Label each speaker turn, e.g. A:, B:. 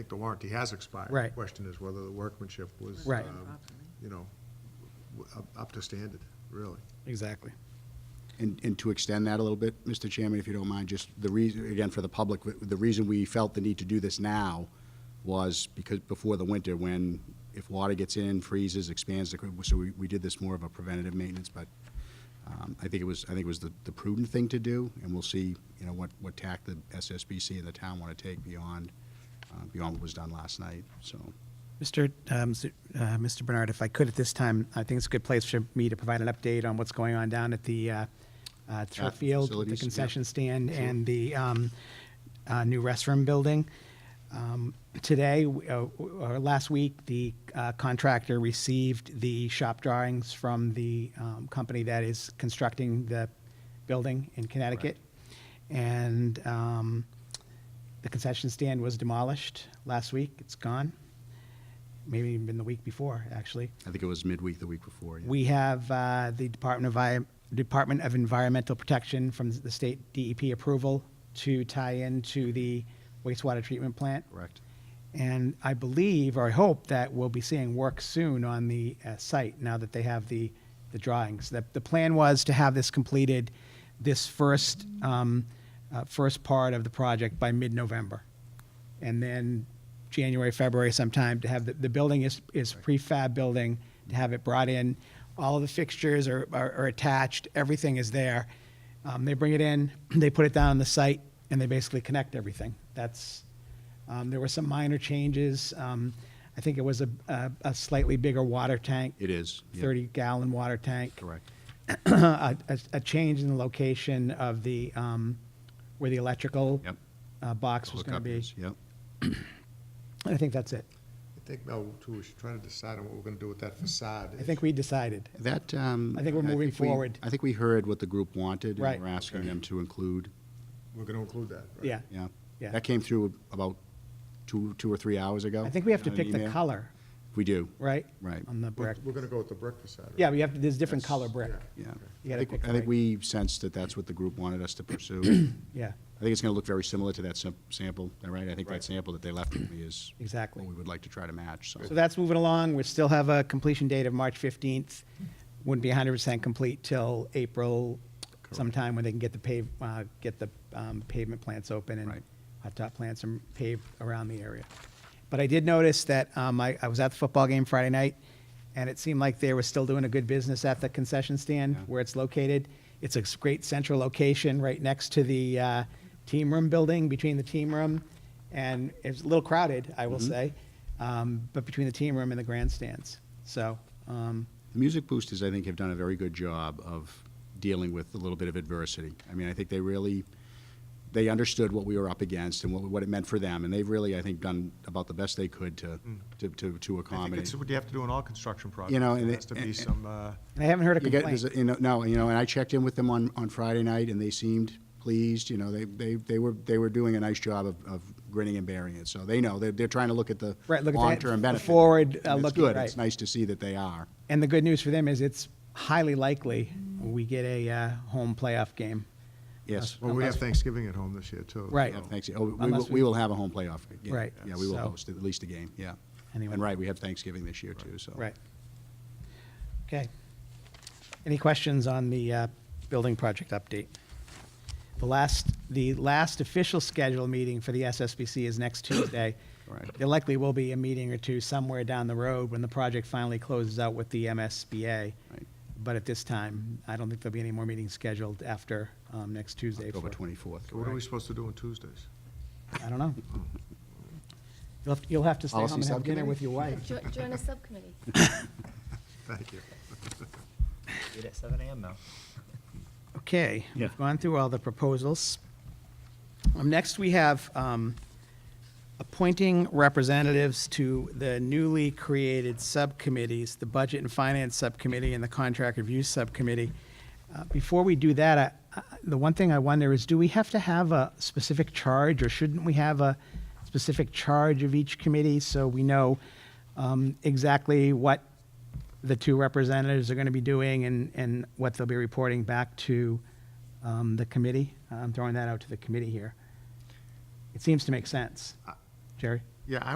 A: think the warranty has expired.
B: Right.
A: The Question is whether the workmanship was.
B: Right.
A: um, You know, w- up- up to standard, really.
B: Exactly.
C: And, and to extend that a little bit, Mr. Chairman, if you don't mind, just the reason, again, for the public, the reason we felt the need to do this now was because before the winter, when, if water gets in, freezes, expands, so we, we did this more of a preventative maintenance, but um, I think it was, I think it was the the prudent thing to do, and we'll see, you know, what, what tack the SSBC and the town want to take beyond, uh, beyond what was done last night, so.
B: Mr. um, s- uh, Mr. Bernard, if I could at this time, I think it's a good place for me to provide an update on what's going on down at the uh, uh, turf
C: At
B: field, the
C: facilities, yeah.
B: concession stand, and the um, uh, new restroom building. Um, Today, w- uh, w- or last week, the uh, contractor received the shop drawings from the um, company that is constructing the building in Connecticut. And um, the concession stand was demolished last week. It's gone. Maybe even the week before, actually.
C: I think it was midweek, the week before, yeah.
B: We have uh, the Department of, Vi- Department of Environmental Protection from the state DEP approval to tie into the wastewater treatment plant.
C: Correct.
B: And I believe, or I hope, that we'll be seeing work soon on the uh, site now that they have the, the drawings. The, the plan was to have this completed this first, um, uh, first part of the project by mid-November. And then January, February sometime to have, the, the building is, is prefab building, to have it brought in. All of the fixtures are, are are attached, everything is there. Um, They bring it in, they put it down on the site, and they basically connect everything. That's, um, There were some minor changes. Um, I think it was a- a a slightly bigger water tank.
C: It is. yeah.
B: 30-gallon water tank.
C: Correct.
B: A a- a change in the location of the, um, where the electrical
C: Yep.
B: uh, box was going to
C: Hookup
B: be.
C: is, Yep.
B: I think that's it.
A: I think, Mel, too, we should try to decide on what we're gonna do with that facade.
B: I think we decided.
C: That, um.
B: I think we're moving
C: we-
B: forward.
C: I think we heard what the group wanted,
B: Right.
C: and we're asking them to include,
A: We're gonna include that, right?
B: Yeah.
C: yeah.
B: Yeah.
C: That came through about two, two or three hours ago.
B: I think we have to
C: on an
B: pick the
C: email.
B: color,
C: We do,
B: right?
C: Right.
B: On the
A: We're
B: brick.
A: we're gonna go with the brick facade. right?
B: Yeah, we have, to- there's different color brick.
A: Yeah.
C: yeah.
B: You gotta
C: I think-
B: pick the
C: I
B: right-
C: think we sensed that that's what the group wanted us to pursue. I think
B: Yeah,
C: it's gonna look very similar to that sam- sample, all right? I think
A: Right.
C: that sample that they left with me is.
B: exactly.
C: What we would like to try to match, so.
B: So that's moving along. We still have a completion date of March 15th. Wouldn't be 100% complete till April sometime when they can get the pave, uh, get the um, pavement plants open and
C: Right.
B: hot top plants and pave around the area. But I did notice that um, I I was at the football game Friday night, and it seemed like they were still doing a good business at the concession stand
C: Yeah.
B: where it's located. It's a great central location right next to the uh, team room building, between the team room, and it's a little crowded, I will
C: Mm-hmm.
B: say, um, but between the team room and the grandstands. So, um,
C: The music boosters, I think, have done a very good job of dealing with a little bit of adversity. I mean, I think they really, they understood what we were up against and what, what it meant for them, and they've really, I think, done about the best they could to,
B: Mm.
C: to, to, to
D: I think
C: accommodate.
D: it's what you have to do in all construction projects.
C: You know, and
D: There
C: it-
D: has to be
C: and-
D: some, uh,
B: and I haven't heard a
C: You get-
B: complaint.
C: there's a- You know, no, you know, and I checked in with them on, on Friday night, and they seemed pleased, you know, they, they, they were, they were doing a nice job of, of grinning and bearing it, so they know, they're, they're trying to look at the
B: Right, look at the- the
C: long-term benefit.
B: forward, uh,
C: And it's
B: looking,
C: good.
B: right.
C: It's nice to see that they are.
B: And the good news for them is it's highly likely we get a uh, home playoff game.
C: Yes.
A: Well, we have Thanksgiving at home this year, too.
B: Right.
C: Yeah,
A: so-
C: thanks. Oh, we will,
B: Unless we-
C: we will have a home playoff. game.
B: Right,
C: Yeah, we will
B: so-
C: host at least a game, yeah.
B: Anyway.
C: And right, we have Thanksgiving this year too, so.
B: Right. Okay. Any questions on the uh, building project update? The last, the last official scheduled meeting for the SSBC is next Tuesday.
C: Correct.
B: There likely will be a meeting or two somewhere down the road when the project finally closes out with the MSBA.
C: Right.
B: But at this time, I don't think there'll be any more meetings scheduled after um, next Tuesday.
C: October
B: for-
C: twenty-fourth.
A: So What are we supposed to do on Tuesdays?
B: I don't know. You'll have, you'll have to stay home
C: Policy
B: and have dinner
C: subcommittee?
B: with your wife.
E: Jo- Join a subcommittee.
A: Thank you.
F: Eat at seven AM now.
B: Okay, we've gone through all the proposals. Um, Next, we have um, appointing representatives to the newly created subcommittees, the Budget and Finance Subcommittee and the Contract Review Subcommittee. Uh, Before we do that, I- I- the one thing I wonder is, do we have to have a specific charge, or shouldn't we have a specific charge of each committee so we know um, exactly what the two representatives are going to be doing and, and what they'll be reporting back to um, the committee. I'm throwing that out to the committee here. It seems to make sense. Jerry?
A: Yeah,